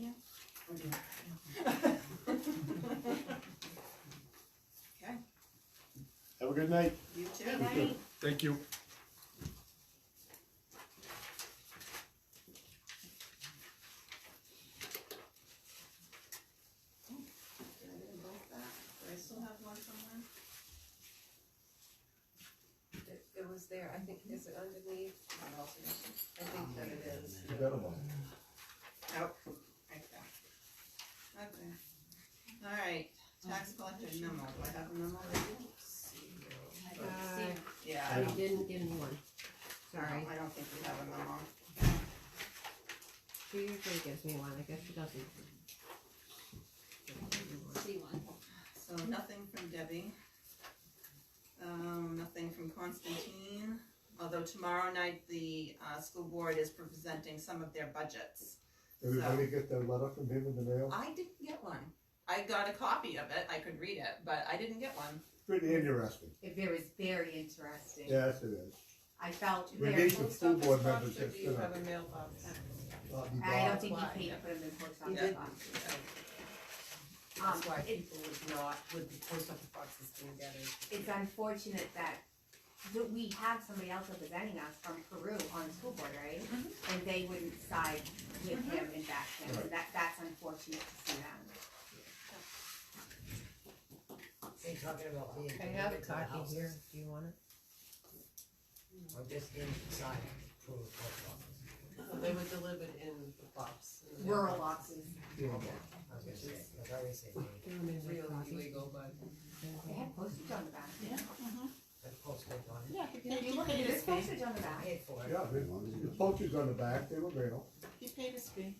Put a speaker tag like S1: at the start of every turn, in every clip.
S1: 어, 네.
S2: Have a good night.
S1: You too. Oh,
S3: Right?
S4: Thank you.
S1: Did I get them both back? Do I still have one somewhere?
S3: It it was there, I think, is it underneath? I think that it is.
S5: You got 'em all.
S1: Nope. Oh, Right there. Okay. Alright, tax collector memo, do I have a memo?
S6: I don't
S7: Uh,
S6: see,
S1: Yeah, I
S6: I
S1: don't,
S6: didn't give me one, sorry,
S1: I don't think we have a memo.
S6: she usually gives me one, I guess she doesn't. Doesn't give me one.
S3: See one.
S1: So nothing from Debbie. Um, nothing from Constantine, although tomorrow night the, uh, school board is presenting some of their budgets.
S5: Everybody get that letter from him in the mail?
S1: I didn't get one. I got a copy of it, I could read it, but I didn't get one.
S5: Pretty interesting.
S7: It was very interesting.
S5: Yes, it is.
S7: I felt
S5: We
S7: very,
S5: need some school board members
S8: Or do
S5: that's
S8: you have
S5: gonna.
S8: a mailbox?
S5: not be
S7: I don't
S5: bothered.
S7: think
S8: Why?
S7: he paid for them in post
S1: Yeah.
S7: office boxes.
S6: Um,
S7: Um,
S8: That's why people would not, would the post office boxes being better.
S7: It's unfortunate that, that we have somebody else representing us from Peru on the school board, right? And they wouldn't side with him and back him, and that, that's unfortunate to see that.
S9: They're talking about being.
S6: I have a
S9: delivered to the
S6: copy
S9: houses,
S6: here, do you want it?
S9: Or just inside, through the post office.
S8: Well, They were delivered in the box. in the
S7: Rural
S8: mailbox,
S7: offices,
S9: Yeah, I was gonna say, I was already saying,
S6: Do you want me to make
S8: Real
S6: coffee?
S8: illegal, but.
S7: they had postage on the back.
S9: the post office on it.
S7: Yeah. Did you look at it? There's postage on the
S9: I
S7: back.
S9: paid for it.
S5: Yeah, the the poachers on the back, they were real.
S8: He paid his fee.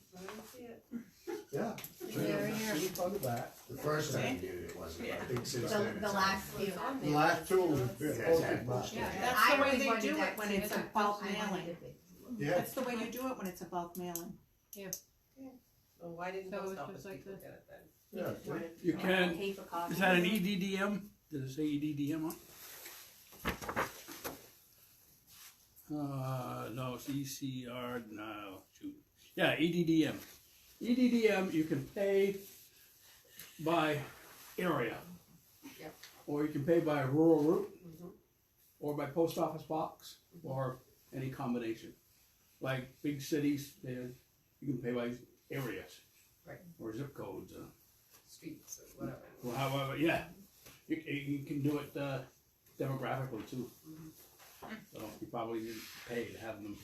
S5: Yeah.
S6: They're in here.
S5: Sheep on the back.
S2: The first time you did it wasn't, I think since then.
S7: The, the
S2: it's-
S7: last few.
S5: The last two was poachers box.
S8: Yeah,
S7: And
S8: that's
S7: I
S8: the way
S7: really
S8: they
S7: wanted
S8: do
S7: that
S8: it when
S7: too,
S8: it's
S7: but
S8: a bulk
S7: I wanted
S8: mailing.
S7: it big.
S5: Yeah,
S10: That's the way you do it when it's a bulk mailing.
S8: Well, why didn't
S10: So it
S8: post
S10: was
S8: office
S10: just like
S8: people
S10: this.
S8: get it then?
S5: yeah.
S4: You can,
S7: Pay for coffee.
S4: is that an e- EDDM? Does it say E EDDM on? it? Uh, no, it's ECR, no, shoot. Yeah, E EDDM. E EDDM, you can pay by area.
S8: Yep. Mm-hmm.
S4: Or you can pay by rural route, or by post office box, or any combination. Like big cities, they, you can pay by areas.
S8: Right.
S4: Or zip codes, uh,
S8: Streets or whatever.
S4: well, however, yeah, you, c- you can do it uh, demographically too.
S3: Mm-hmm.
S4: So you probably didn't pay to have them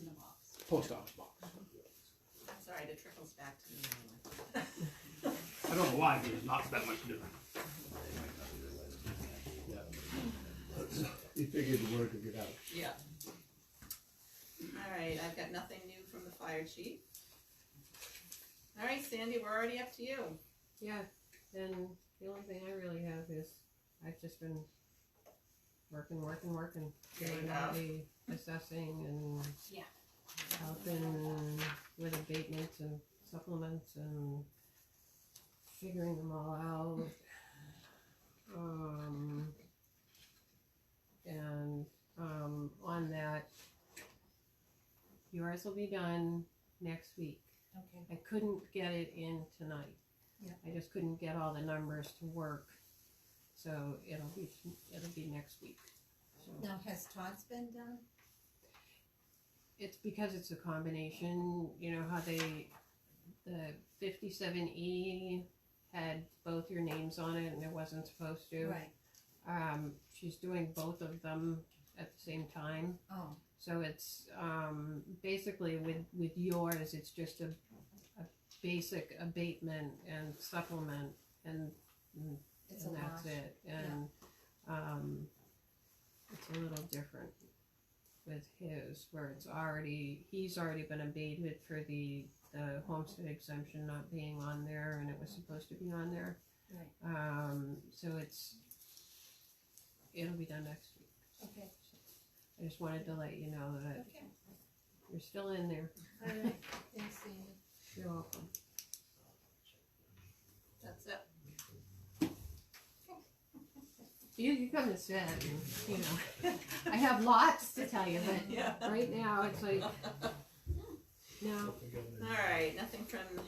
S3: In the box.
S4: post office box.
S1: Sorry, the trickles back to me.
S4: I don't know why there's not that much different.
S3: Mm-hmm.
S5: He figured the word would get out.
S1: Yeah. Alright, I've got nothing new from the fire chief. Alright, Sandy, we're already up to you.
S6: Yeah, and the only thing I really have is, I've just been working, working, working,
S1: There you
S6: doing all the assessing and
S3: Yeah.
S6: helping with abatements and supplements and figuring them all out. Um, and, um, on that, yours will be done next week.
S3: Okay.
S6: I couldn't get it in tonight.
S3: Yeah.
S6: I just couldn't get all the numbers to work, so it'll be, it'll be next week. So
S3: Now, has Todd's been done?
S6: It's because it's a combination, you know, how they, the fifty-seven E had both your names on it and it wasn't supposed to.
S3: Right,
S6: Um, she's doing both of them at the same time.
S3: oh,
S6: So it's um, basically with, with yours, it's just a, a basic abatement and supplement and, and
S3: it's a
S6: that's
S3: wash.
S6: it. And um, it's a little different with his, where it's already, he's already been abated for the, the homestead exemption not being on there and it was supposed to be on there.
S3: Right.
S6: Um, so it's, it'll be done next week.
S3: Okay,
S6: I just wanted to let you know that
S3: okay,
S6: you're still in there.
S3: alright, thanks, Sandy.
S6: You're welcome.
S1: That's it.
S6: You can come and sit, and, you know. I have lots to tell you,
S1: Yeah.
S6: but right now it's like, no.
S5: Forget it.
S1: Alright, nothing from